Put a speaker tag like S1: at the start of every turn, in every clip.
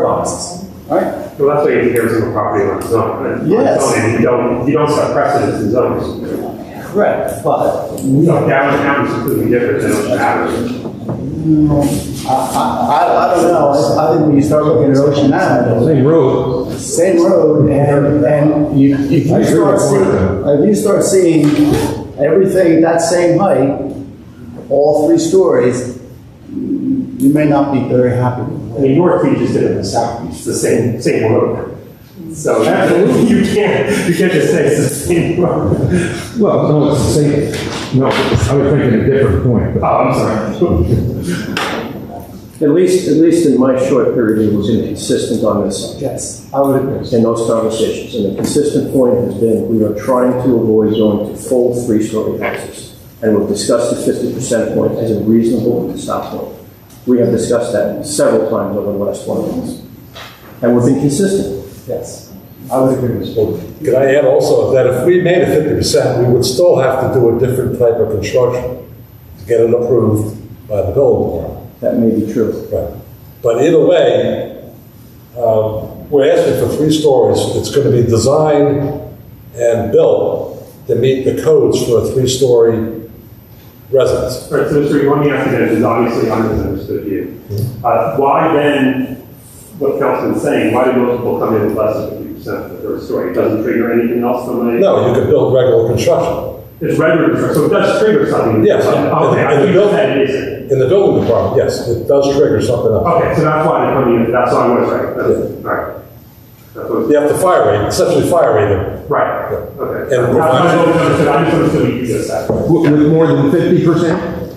S1: whereabouts.
S2: Right?
S3: Well, that's why you hear from a property owner zone.
S2: Yes.
S3: Zoning, You don't, you don't set precedence in zones.
S1: Correct, but
S3: You know, downtown is completely different than Ocean Avenue.
S2: I, I, I- I don't know, I- I think when you start looking at Ocean Avenue,
S4: Same road.
S2: same road, and, and you, if
S4: I
S2: you
S4: agree
S2: start
S4: with
S2: seeing,
S4: that.
S2: if you start seeing everything that same height, all three stories, you may not be very happy with it.
S3: I mean, North Beach is different than South Beach, it's the same, same road. So that- you can't, you can't just say it's the same road.
S4: Well, no, it's the same, no, I was making a different point,
S3: Oh,
S4: but
S3: I'm sorry.
S5: At least, at least in my short period, it was inconsistent on this
S1: yes, I would agree.
S5: in those conversations. And the consistent point has been, we are trying to avoid going to full three-story houses. And we've discussed the fifty percent point as a reasonable stop point. We have discussed that several times over the last one months. And we've been consistent.
S1: Yes, I would agree with you.
S6: Could I add also that if we made it fifty percent, we would still have to do a different type of construction to get it approved by the building
S5: That may be true.
S6: department. But either way, um, we're asking for three stories. It's going to be designed and built to meet the codes for a three-story residence.
S3: Right, so Mr. One thing I think that is obviously I misunderstood you. Uh, why then, what Councilman's saying, why do most people come in with less than fifty percent of the first story? It doesn't trigger anything else from a?
S6: No, you could build regular construction
S3: It's regular, so it does trigger something.
S6: Yes.
S3: Okay, I think that it is.
S6: in the building department. Yes, it does trigger something else.
S3: Okay, so that's why they're coming in, that's why I was right, that's, right. That's what,
S6: You have to fire rate, essentially fire rate them.
S3: right, okay.
S6: And-
S3: I I misunderstood, I misunderstood what you just said.
S4: with with more than fifty percent?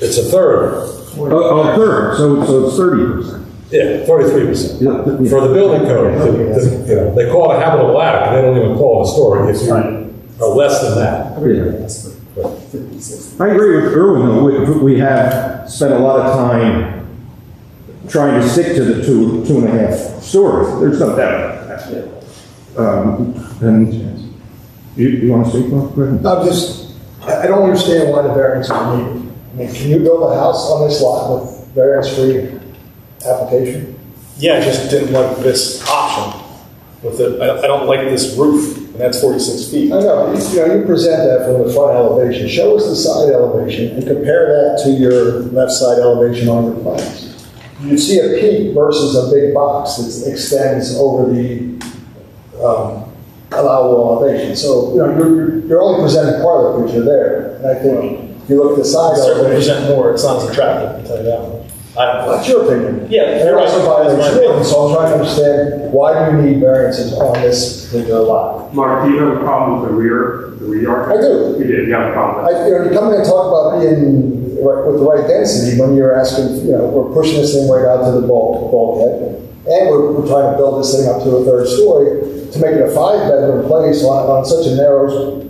S6: It's a third,
S4: A third, so, so it's Oh, thirty percent.
S6: yeah, thirty-three percent.
S4: Yeah, th- yeah.
S6: For the building code, the- the- you know, they call it a habitable attic, they don't even call it a story if you are less than that.
S4: I agree with Irwin, though, we, we have spent a lot of time trying to stick to the two, two and a half stories, there's no doubt. about that. Um, and, you, you wanna speak, Mark? Go ahead.
S7: I'm just, I I don't understand why the variance is needed. I mean, can you build a house on this lot with variance-free application?
S8: Yeah, I just didn't like this option with the, I, I don't like this roof, and that's forty-six feet.
S7: I know, you you know, you present that from the front elevation, show us the side elevation, and compare that to your left side elevation on your plans. You'd see a peak versus a big box that extends over the um, allowable elevation. So, you know, you're- you're only presenting part of the picture there. And I think if you look at the
S8: I
S7: side
S8: certainly
S7: elevation,
S8: present more, it's not as attractive, I'll tell you that much. I don't,
S7: That's your opinion.
S8: Yeah,
S7: And
S8: you're
S7: it
S8: right.
S7: also violates rules, so I'm trying to understand, why do we need variances on this particular lot?
S3: Mark, do you have a problem with the rear, the rear yard?
S7: I do.
S3: You did, you have a problem
S7: I,
S3: with
S7: you know, you come in and talk about being right- with the right density when you're asking, you know, we're pushing this thing right out to the bulk, bulkhead. And we're, we're trying to build this thing up to a third story to make it a five-bedroom place on, on such a narrow,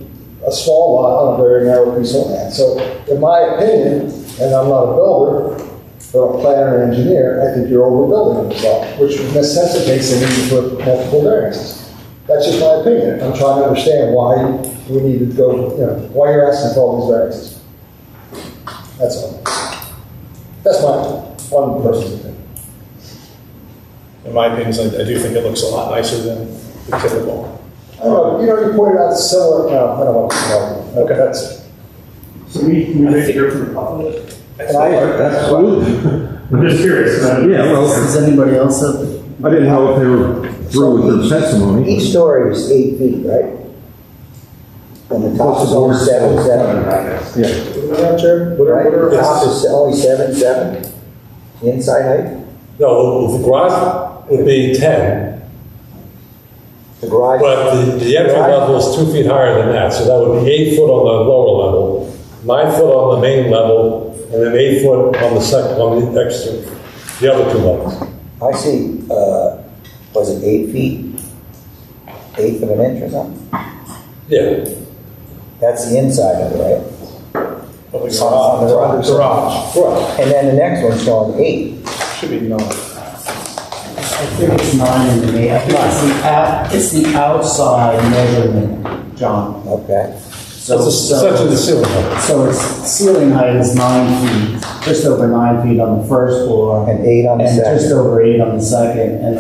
S7: a small lot on a very narrow piece of land. So in my opinion, and I'm not a builder, but a planner and engineer, I think you're overbuilding this lot, which necessitates the need for multiple variances. That's just my opinion. I'm trying to understand why we need to go, you know, why you're asking for all these variances. That's all. That's my one person's opinion.
S8: in my opinion, I, I do think it looks a lot nicer than the typical.
S7: I don't know, you know, you pointed out similar, no, I don't want to, no, okay, that's,
S3: it. So we, we did hear from the public.
S7: and I,
S4: Absolutely.
S3: I'm just curious, uh,
S4: Yeah, well,
S9: Does anybody else have?
S4: I didn't know if they were through with their testimony.
S9: Each story is eight feet, right? And the top
S4: Plus
S9: is
S4: the board.
S9: only seven, seven.
S4: Yeah,
S7: Madam Chair, what are,
S9: Right,
S7: what are,
S9: the top is only seven, seven? Inside height?
S6: No, the garage would be ten,
S9: The garage?
S6: but the, the entry level is two feet higher than that, so that would be eight foot on the lower level, nine foot on the main level, and then eight foot on the second, on the extra, the other two levels.
S9: I see, uh, was it eight feet? Eighth of an inch or something?
S6: Yeah,
S9: That's the inside of it, right?
S8: But the
S9: On the
S8: garage, garage
S6: right.
S9: And then the next one's showing eight.
S8: should be known.
S1: I think it's nine in the main, I think it's the out, it's the outside measurement, John.
S9: Okay.
S1: So,
S6: That's
S1: so,
S6: essentially the ceiling height.
S1: so it's
S2: ceiling height is nine feet, just over nine feet on the first floor.
S7: And eight on the
S2: And
S7: second.
S2: just over eight on the second, and